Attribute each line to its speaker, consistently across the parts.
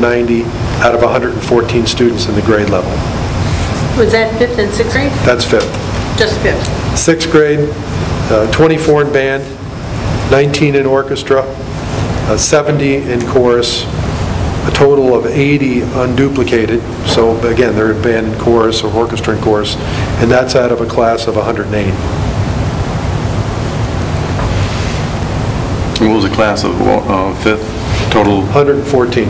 Speaker 1: 90 out of 114 students in the grade level.
Speaker 2: Was that fifth and sixth grade?
Speaker 1: That's fifth.
Speaker 2: Just fifth.
Speaker 1: Sixth grade, uh, 24 in band, 19 in orchestra, uh, 70 in chorus, a total of 80 unduplicated. So again, they're in band and chorus or orchestra and chorus, and that's out of a class of 108.
Speaker 3: And What was the class of, uh, fifth, total?
Speaker 1: 114.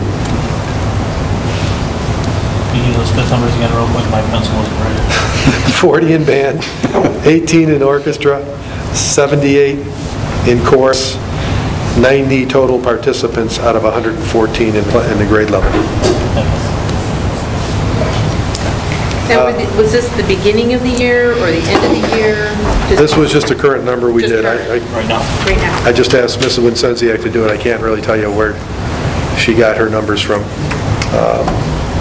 Speaker 4: Can you those fifth numbers again real quick? My pencil wasn't ready.
Speaker 1: 40 in band, 18 in orchestra, 78 in chorus, 90 total participants out of 114 in in the grade level.
Speaker 2: Now,
Speaker 1: Uh,
Speaker 2: were the- was this the beginning of the year or the end of the year?
Speaker 1: This was just a current number we
Speaker 2: Just
Speaker 1: did. I-
Speaker 2: current.
Speaker 1: I-
Speaker 4: Right now.
Speaker 2: Right now.
Speaker 1: I just asked Mrs. Wincenziak to do it. I can't really tell you where she got her numbers from. Um,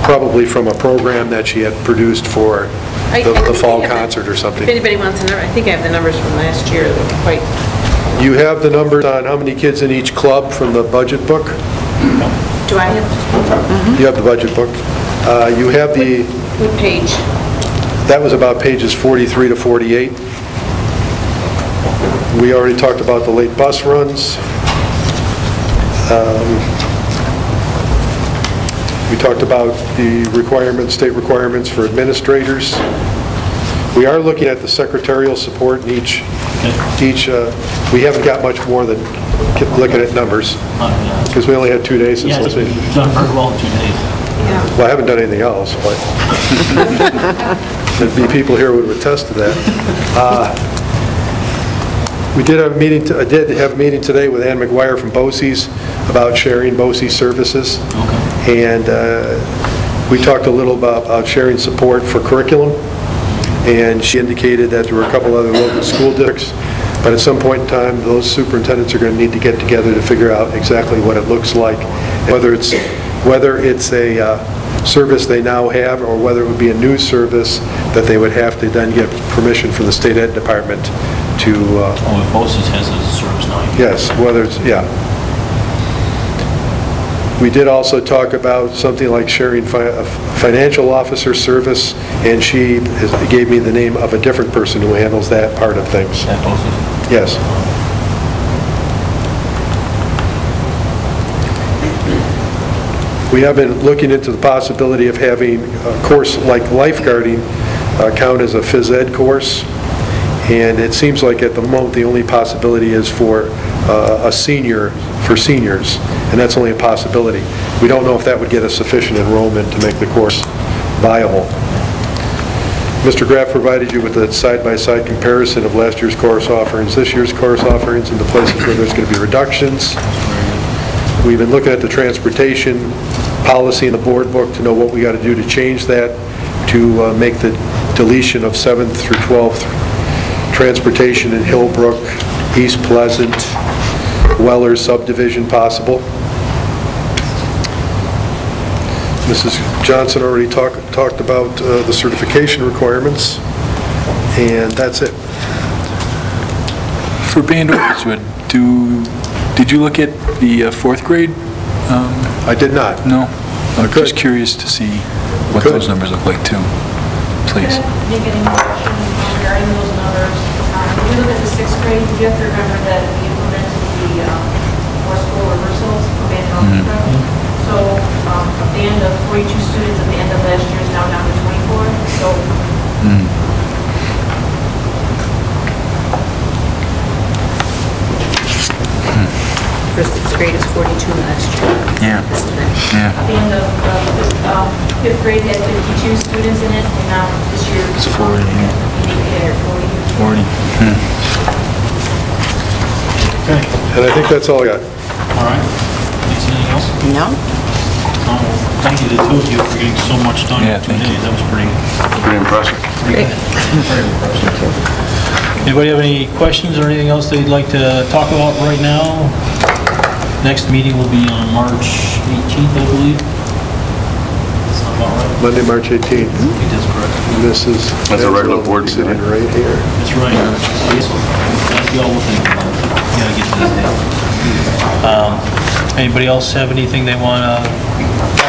Speaker 1: Probably from a program that she had produced for
Speaker 2: I- I
Speaker 1: the the
Speaker 2: think
Speaker 1: fall
Speaker 2: I have the-
Speaker 1: concert or
Speaker 2: If
Speaker 1: something.
Speaker 2: anybody wants to know, I think I have the numbers from last year, that were quite,
Speaker 1: You have the numbers on how many kids in each club from the budget book?
Speaker 2: do I have,
Speaker 1: You have the budget book. Uh, You have the,
Speaker 2: what page?
Speaker 1: that was about pages 43 to 48. We already talked about the late bus runs. Um, We talked about the requirements, state requirements for administrators. We are looking at the secretarial support in each, each, uh, we haven't got much more than keep looking at numbers,
Speaker 4: Yeah,
Speaker 1: because we only had two days since last
Speaker 4: it's
Speaker 1: meeting.
Speaker 4: it's done very well in two days.
Speaker 2: Yeah.
Speaker 1: Well, I haven't done anything else, but there'd be people here who would attest to that. Uh, We did have a meeting, t- I did have a meeting today with Ann McGuire from BOCES about sharing BOCES services. And uh, we talked a little about about sharing support for curriculum, and she indicated that there were a couple other local school districts, but at some point in time, those superintendents are going to need to get together to figure out exactly what it looks like, whether it's, whether it's a uh, service they now have, or whether it would be a new service that they would have to then get permission from the state ed department to, uh,
Speaker 4: Oh, if BOSI's has a service now. you-
Speaker 1: yes, whether it's, yeah. We did also talk about something like sharing fi- a financial officer service, and she is- gave me the name of a different person who handles that part of things.
Speaker 4: At BOSI's.
Speaker 1: Yes. We have been looking into the possibility of having a course like lifeguarding uh, count as a phys ed course, and it seems like at the moment, the only possibility is for uh, a senior, for seniors, and that's only a possibility. We don't know if that would get a sufficient enrollment to make the course viable. Mr. Graff provided you with a side-by-side comparison of last year's course offerings, this year's course offerings, and the places where there's going to be reductions. We've been looking at the transportation policy in the board book to know what we got to do to change that, to uh, make the deletion of 7th through 12th transportation in Hillbrook, East Pleasant, Weller subdivision possible. Mrs. Johnson already talked, talked about uh, the certification requirements, and that's it.
Speaker 5: For band orchestra, do, did you look at the uh, fourth grade? Um,
Speaker 1: I did not.
Speaker 5: No? I'm
Speaker 1: Could.
Speaker 5: just curious to see what
Speaker 1: Could.
Speaker 5: those numbers look like too, please.
Speaker 6: Make any motion regarding those numbers. Um, When you look at the sixth grade, you have to remember that we implemented the um, forceful reversals for band
Speaker 5: Mm-hmm.
Speaker 6: algebra. So um, a band of 42 students at the end of last year is now down to 24. So
Speaker 2: For sixth grade is 42 last year.
Speaker 5: Yeah.
Speaker 2: This time.
Speaker 6: a
Speaker 5: Yeah.
Speaker 6: band of uh, fifth- um, fifth grade had 52 students in it, and now this year.
Speaker 5: It's 40, yeah.
Speaker 6: Yeah, 40.
Speaker 1: And I think that's all I got.
Speaker 4: All right. Is anything else?
Speaker 7: No?
Speaker 4: No. Thank you, to the two of you, for getting so much done
Speaker 5: Yeah,
Speaker 4: in two
Speaker 5: thank you.
Speaker 4: days. That was pretty,
Speaker 3: Pretty impressive.
Speaker 4: very impressive. Anybody have any questions or anything else they'd like to talk about right now? Next meeting will be on March 18th, I believe. That's not about right.
Speaker 1: Monday, March 18th,
Speaker 4: It is correct.
Speaker 1: Mrs.
Speaker 3: That's a regular board meeting,
Speaker 1: Sitting right here.
Speaker 4: That's right. That's the old thing. You gotta get to this day. Um, Anybody else have anything they want to